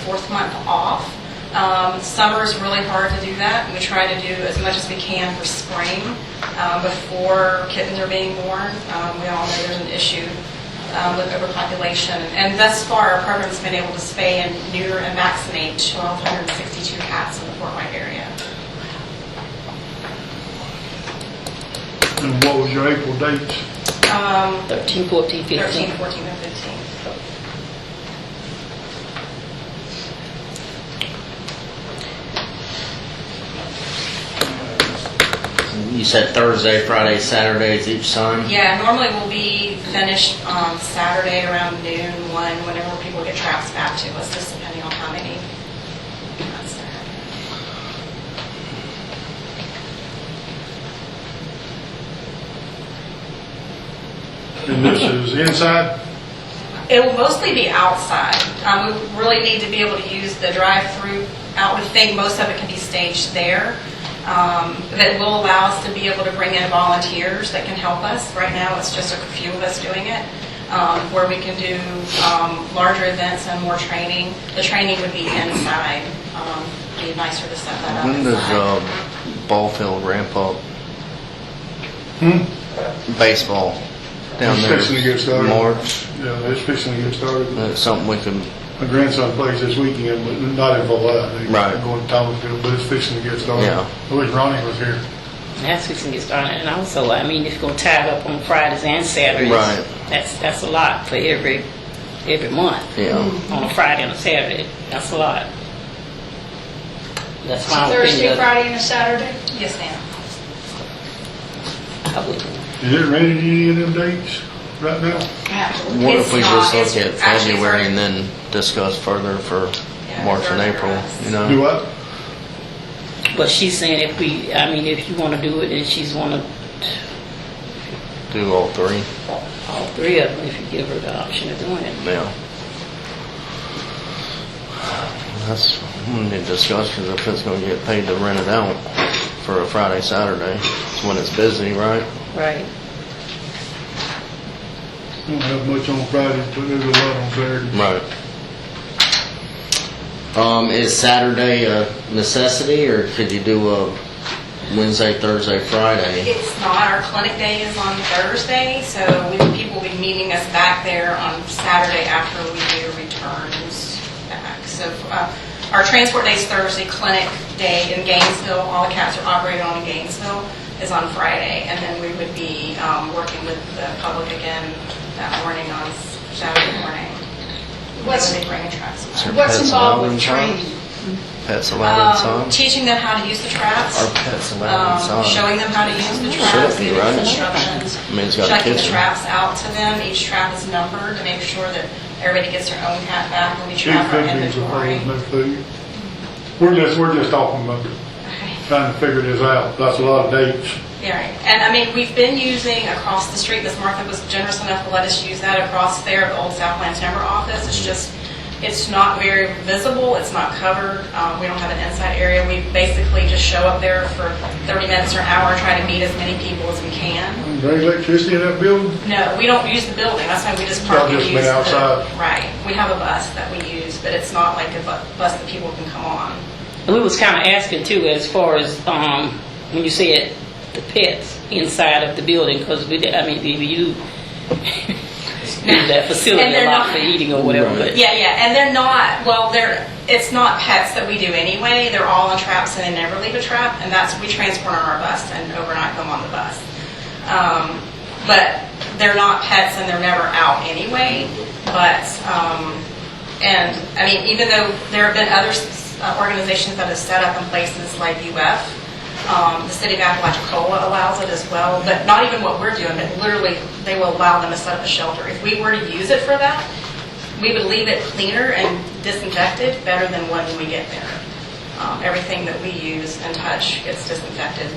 fourth month off. Um, Summer is really hard to do that, and we try to do as much as we can for spring um, before kittens are being born. Um, We all know there's an issue um, with overpopulation, and thus far, our program's been able to spay and neuter and vaccinate 1,262 cats in the Fort White area. And what was your April dates? 13, 14, 13, 15. 14, and 15. You said Thursday, Friday, Saturdays each time? Yeah, normally we'll be finished on Saturday around noon, one, whenever people get traps back to us, just depending on how many. cats there are. And this is inside? It will mostly be outside. Um, We really need to be able to use the drive-through out with thing. Most of it can be staged there. Um, That will allow us to be able to bring in volunteers that can help us. Right now, it's just a few of us doing it, um, where we can do um, larger events and more training. The training would be inside. Um, Be nicer to set that up When does inside. um, ball field ramp up? Baseball down It's Hmm? there. fixing to get started. March. Yeah, it's fixing to get started. That's something we can. My grandson plays this weekend, but not in Valette. Right. Going to Thomasville, but it's fixing to get started. Yeah. I wish Ronnie was here. That's we can get started. And also, I mean, if you're gonna tie it up on Fridays and Saturdays. Right. That's, that's a lot for every, every month. Yeah. Hmm. On a Friday and a Saturday, that's a lot. That's my Thursday, opinion. Friday, and a Saturday? Yes, ma'am. Friday. Is it ready to any of them dates right now? Uh-huh. What It's if we not- just look it's at actually February very- and then discuss further for Yeah, March and further April? us. You Do know. what? But she's saying if we, I mean, if you wanna do it, then she's wanna, Do all three. all three of them, if you give her the option of doing it. Yeah. That's we need to discuss because if it's going to get paid to rent it out for a Friday, Saturday, it's when it's busy, right? Right. Don't have much on Friday, but there's a lot on Saturday. Right. Um, is Saturday a necessity, or could you do a Wednesday, Thursday, Friday? It's not, our clinic day is on Thursday, so we- people will be meeting us back there on Saturday after we do returns back. So uh, our transport day is Thursday, clinic day in Gainesville, all the cats are operated on in Gainesville, is on Friday. And then we would be um, working with the public again that morning on Saturday morning. What's- When they bring traps back. What's Pets involved allowed with inside? training? Pets allowed Um, inside? Teaching them how to use the traps. Are pets allowed um, inside? showing them how to use the Should traps, it be, giving right? instructions, I mean, it's got a checking the kitchen. traps out to them. Each trap is numbered to make sure that everybody gets their own cat back when we Two trap our fifties of inventory. no food. We're just, we're just talking about Okay. trying to figure this out. That's a lot of dates. Yeah, right. And I mean, we've been using across the street, Miss Martha was generous enough to let us use that across there at the old Southland Timber office. Mm-hmm. It's just, it's not very visible, it's not covered, uh, we don't have an inside area. We basically just show up there for 30 minutes or an hour, and try to meet as many people as we can. Is there electricity in that building? No, we don't use the building, that's why we just park Y'all and just use meet the... outside? Right, we have a bus that we use, but it's not like a bu- bus that people can come on. We was kind of asking too, as far as, um, when you said the pets inside of the building, because we, did- I mean, we you, that And facility they're a lot not- for eating or whatever, but. Yeah, yeah, and they're not, well, they're, it's not pets that we do anyway, they're all in traps and they never leave a trap, and that's, we transport on our bus and overnight them on the bus. Um, But they're not pets and they're never out anyway, but, um, and, I mean, even though there have been other s- uh, organizations that have set up in places like UF, um, the city of Apalachicola allows it as well, but not even what we're doing, but literally, they will allow them to set up a shelter. If we were to use it for that, we would leave it cleaner and disinfected better than when we get there. Um, Everything that we use and touch gets disinfected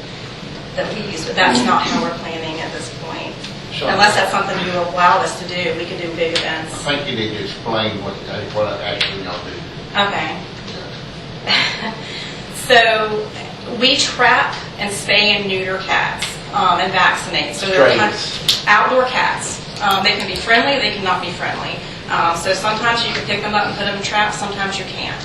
that we use, but that's not how we're planning at this point. Sure. Unless that's something you allowed us to do, we could do big I events. think you need to explain what, what actually y'all do. Okay. So we trap and spay and neuter cats um, and vaccinate. So they're Strays. outdoor cats. Um, They can be friendly, they cannot be friendly. Uh, So sometimes you can pick them up and put them in traps, sometimes you can't.